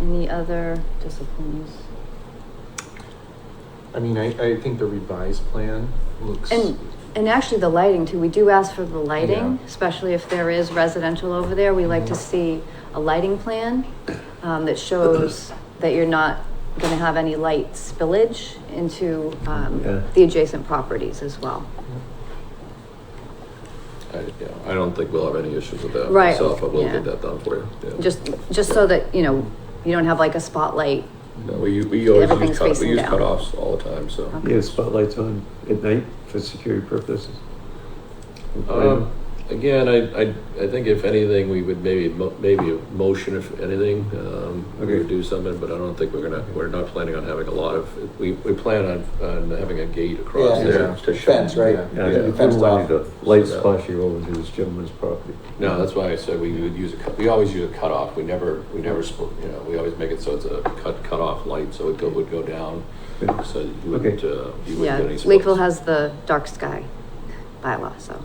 Any other disciplines? I mean, I, I think the revised plan looks. And, and actually the lighting too, we do ask for the lighting, Yeah. especially if there is residential over there, we like to Mm-hmm. Mhm. see a lighting plan um, that shows that you're not gonna have any light spillage into, um, Yeah. the adjacent properties as well. I, yeah, I don't think we'll have any issues with that Right, myself, but we'll yeah. get that done for you. yeah. Just, just so that, you know, you don't have like a spotlight. No, we, u- we always Everything's use cut, facing we use down. cutoffs all the time, so. Okay. Yeah, spotlights on at night for security purposes. Um, again, I, I, I think if anything, we would maybe, mo- maybe a motion if anything, um, we Okay. would do something, but I don't think we're gonna, we're not planning on having a lot of, we, we plan on, on having a gate across Yeah, there yeah. to shut. Fence, right? Yeah. Yeah, Yeah. I wouldn't Fenced want off. any of the lights So that- flashing over to this gentleman's property. No, that's why I said we would use a, cut- we always use a cutoff, we never, we never, sp- you know, we always make it so it's a cut, cutoff light, so it go- would go down, Yeah. so you wouldn't, Okay. uh, you Yeah, wouldn't get any. Lakeville spokes. has the dark sky bylaw, so.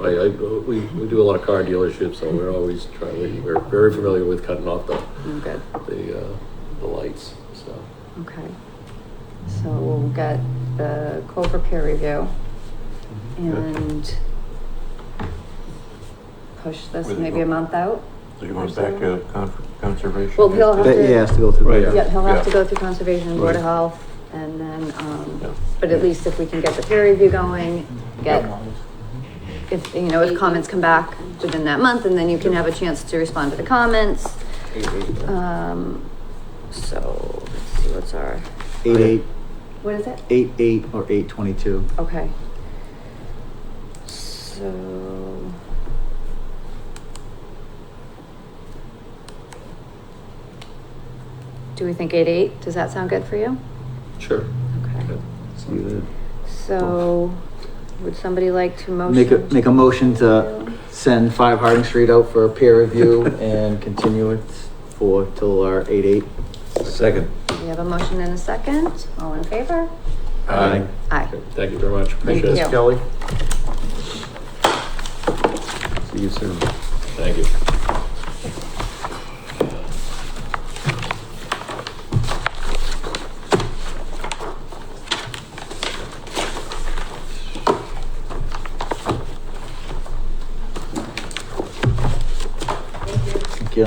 I, I, we, we do a lot of car dealerships, so we're always trying, we, we're very familiar with cutting off the, I'm good, the, uh, the lights, so. okay. So we'll get the quote for peer review Mm-hmm. and push this Where they maybe a go? month out. So you want back to con- conservation? Well, he'll have Yeah. That he has to go through. Right. that. Yep, he'll have to Yeah. go through conservation, board of Right. health, and then, um, Yeah. Mm-hmm. but at least if we can get the peer review going, get, if, you know, if comments come back within that month, and then you can have a chance to respond to the comments. Um, so, let's see, what's our, Eight, eight, what is it? eight, eight, or eight twenty-two. Okay. So. Do we think eight eight? Does that sound good for you? Sure. Okay, See that? so would somebody like to motion? Make a, make a motion to to- send five Harding Street out for a peer review and continue it for till our eight, eight. Second. We have a motion and a second. All in favor? Aye. Aye. Okay, Thank you very much, appreciate you. it. Kelly? See you soon. Thank you. Thank you.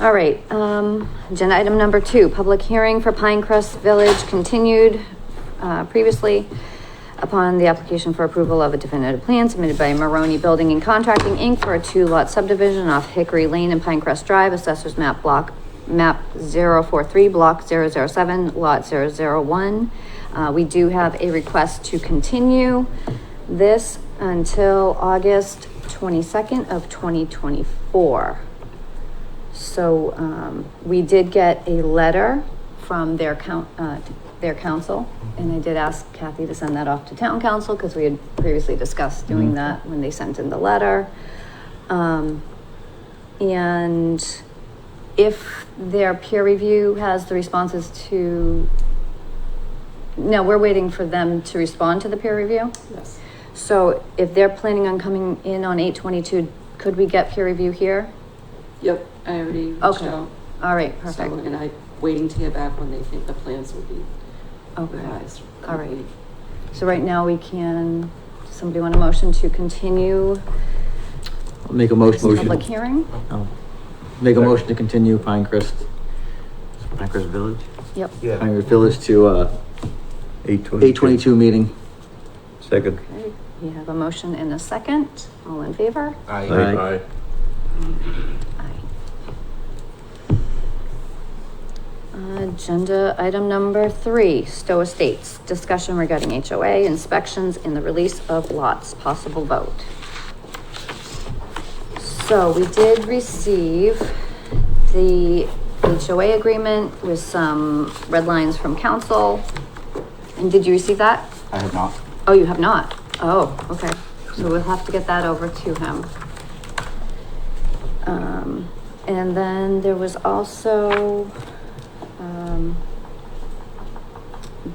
All right, um, agenda item number two, public hearing for Pinecrest Village continued, uh, previously upon the application for approval of a definitive plan submitted by Maroni Building and Contracting, Inc. for a two-lot subdivision off Hickory Lane and Pinecrest Drive, assessors map block, map 043, block 007, lot 001. Uh, we do have a request to continue this until August twenty-second of twenty twenty-four. So, um, we did get a letter from their coun- uh, their council, and I did ask Kathy to send that off to town council, because we had previously discussed doing that when they sent in the letter. Um, and if their peer review has the responses to, no, we're waiting for them to respond to the peer review? Yes. So if they're planning on coming in on eight twenty-two, could we get peer review here? Yep, I already reached Okay, out. All right, So, perfect. And I'm waiting to hear back when they think the plans will be Okay, revised. all right. So right now we can, does somebody want a motion to continue I'll Make a this motion. public hearing? Oh. Make a motion to continue Pinecrest, Pinecrest Village? Yep. Pinecrest Village to, uh, Eight twenty. eight twenty-two meeting. Second. Okay, we have a motion and a second. All in favor? Aye. Aye. Aye. Agenda item number three, Stowe Estates, discussion regarding HOA inspections and the release of lots, possible vote. So we did receive the HOA agreement with some red lines from council. And did you receive that? I have not. Oh, you have not? Oh, okay. So we'll have to get that over to him. Um, and then there was also, um,